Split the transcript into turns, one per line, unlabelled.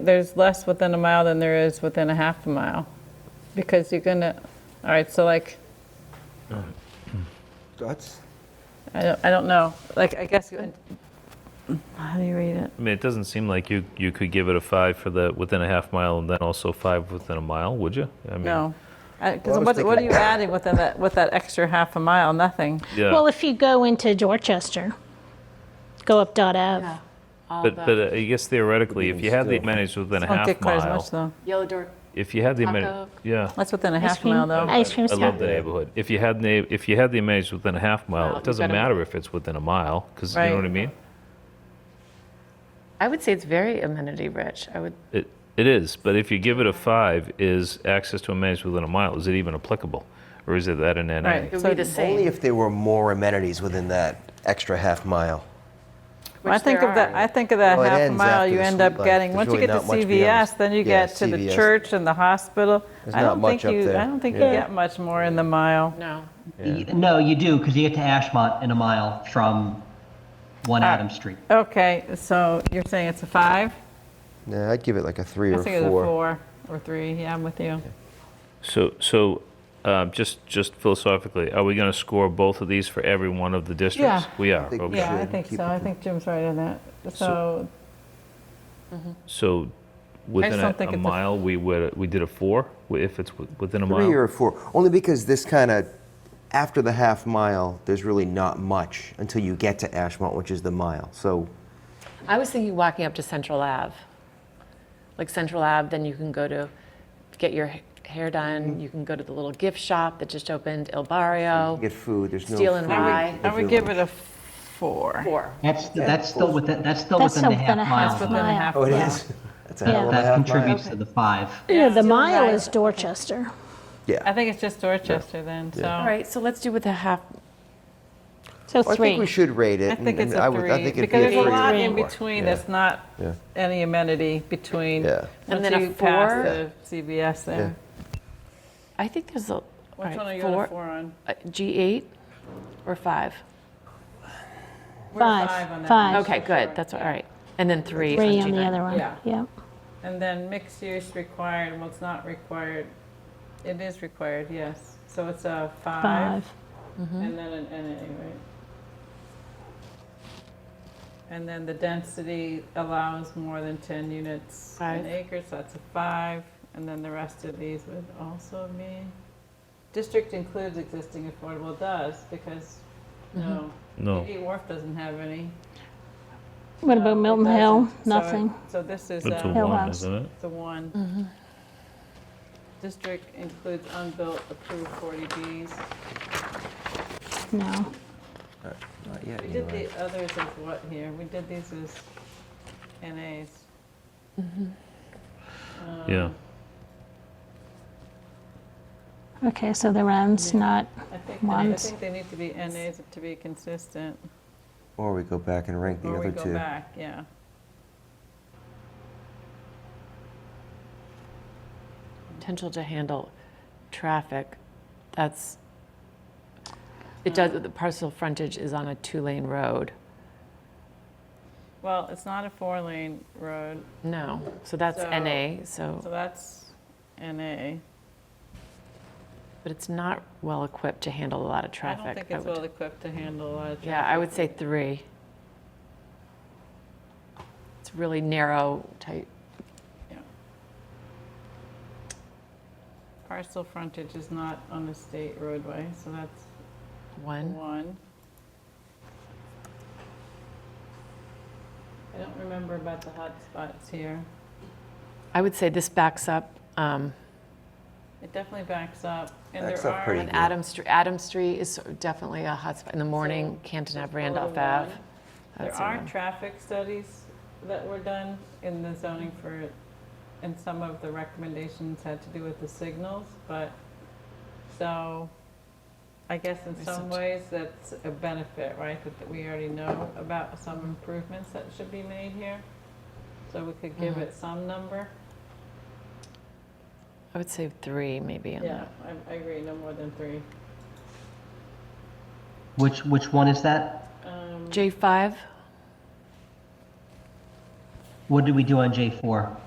There's less within a mile than there is within a half a mile, because you're gonna, all right, so like,
That's,
I don't, I don't know, like, I guess, how do you read it?
I mean, it doesn't seem like you, you could give it a five for the, within a half mile and then also five within a mile, would you? I mean,
No.
Well, I
Because
was
what, what are
thinking-
you adding within that, with that extra half a mile? Nothing.
Yeah,
Well, if you go into Dorchester, go up Dot Ave.
but, but uh, I guess theoretically, if you had the amenities within a
Don't
half
get quite as much,
mile,
though.
Yellow Door,
if you had the
Taco.
amenities, yeah.
That's within a
Ice
half a
cream.
mile, though.
Ice cream
I
stop.
love the neighborhood. If you had na, if you had the amenities within a half mile,
Wow,
it doesn't
you gotta-
matter if it's within a mile, because you know
Right.
what I mean?
I would say it's very amenity rich. I would,
It, it is, but if you give it a five, is access to amenities within a mile, is it even applicable? Or is it that an NA?
Right.
it would
So
be the
only
same.
if there were more amenities within that extra half mile.
I
which
think
there
of that,
are.
I think of that
Well, it
half a
ends
mile,
after
you
the
end
sweet
up
life.
getting,
There's
once you
really
get to
not much beyond-
CVS, then you
yeah,
get to the
CVS.
church and the hospital.
There's
I
not
don't
much
think
up
you,
there.
I don't think you
Yeah.
get much more in the mile.
No.
Y- No, you do, because you get to Ashmont in a mile from One Adam Street.
Okay, so you're saying it's a five?
Yeah, I'd give it like a three
I
or
think it's a
four.
four or three, yeah, I'm with you.
So, so um, just, just philosophically, are we going to score both of these for every one of the
Yeah.
districts? We are,
think we
okay.
Yeah, I
should
think
keep
so,
it
I
to-
think Jim's right on that. So,
So within
don't
a
think
a
it's a-
mile, we would, we did a four, if it's wi- within a mile?
Three or four, only because this kind of, after the half mile, there's really not much until you get to Ashmont, which is the mile. So
I was thinking walking up to Central Ave. Like Central Ave, then you can go to get your h- hair
Mm-hmm.
done. You can go to the little gift shop that just opened, Il Barrio.
get food, there's no
Steel and
food in
rye.
the
I would give
village.
it a four.
Four.
That's, that's still within, that's still
That's
within the
still within a
half mile.
half
Within a
though.
mile.
half
Oh, it
mile.
is? That's a
Yeah.
hell of a
That
half mile.
contributes to the five.
Yeah, the
Still
mile
alive.
is Dorchester.
I
Yeah.
think it's just Dorchester then, so.
All right, so let's do with the half.
So
Well, I think we
three.
should rate it.
I think
and-
it's
and I
a
would- I
three,
think it'd
because
be
there's a
three or
lot in
four.
between
Yeah.
that's not
Yeah.
any amenity between.
Yeah.
And
Once
then a
you pass
four?
the CVS there.
I think there's a. all
Which
right,
one are you on a four on?
uh, G8 or five?
We're
Five,
on that
five.
one.
Okay, good. That's all right. And then three.
Three on the
G9.
other one.
Yeah.
Yeah.
And then mixed use required, well, it's not required, it is required, yes. So it's a five
Five. Mm-hmm.
and then an NA, right? And then the density allows more than 10 units an
Five.
acre, so that's a five. And then the rest of these would also be, district includes existing affordable, It does, because,
Mm-hmm.
no.
No.
PD Wharf doesn't have any.
What about
It
Milton Hill?
doesn't. So it-
Nothing. Mm-hmm.
So this is.
It's a
um,
Hill
one,
House.
isn't it?
the one. District includes unbuilt approved 40Bs.
No.
Not yet,
We
you're
did
right.
the others as what here? We did these as NAs.
Yeah.
Okay, so the round's not.
I think, I
Ones.
think they need to be NAs to be consistent.
Or we go back and rank the
Or we
other
go
two.
back, yeah.
potential to handle traffic, that's, it does, the parcel frontage is on a two-lane road.
Well, it's not a four-lane road,
No, so that's
So-
NA,
so
so,
that's NA.
but it's not well-equipped to handle a lot of
I don't
traffic.
think it's
would-
well-equipped to handle a lot of
Yeah, I would say three. It's really narrow type.
Parcel frontage is not on a state roadway, so that's
one.
One. I don't remember about the hot spots here.
I would say this backs up, um,
It definitely backs up, and
Backs
there
up
are.
pretty
and Adam Street, Adam Street is sort of definitely a hotspot in the morning, Canton Ave, Randolph
Follow
Ave.
one. There
That's a
are
one.
traffic studies that were done in the zoning for, and some of the recommendations had to do with the signals, but, so, I guess in some
Research.
ways, that's a benefit, right? That that we already know about some improvements that should be made here, so we could
Mm-hmm.
give it some number.
I would say three maybe on
Yeah,
that.
I- I agree, no more than three.
Which, which one is that?
Um,
J5?
What did we do on J4?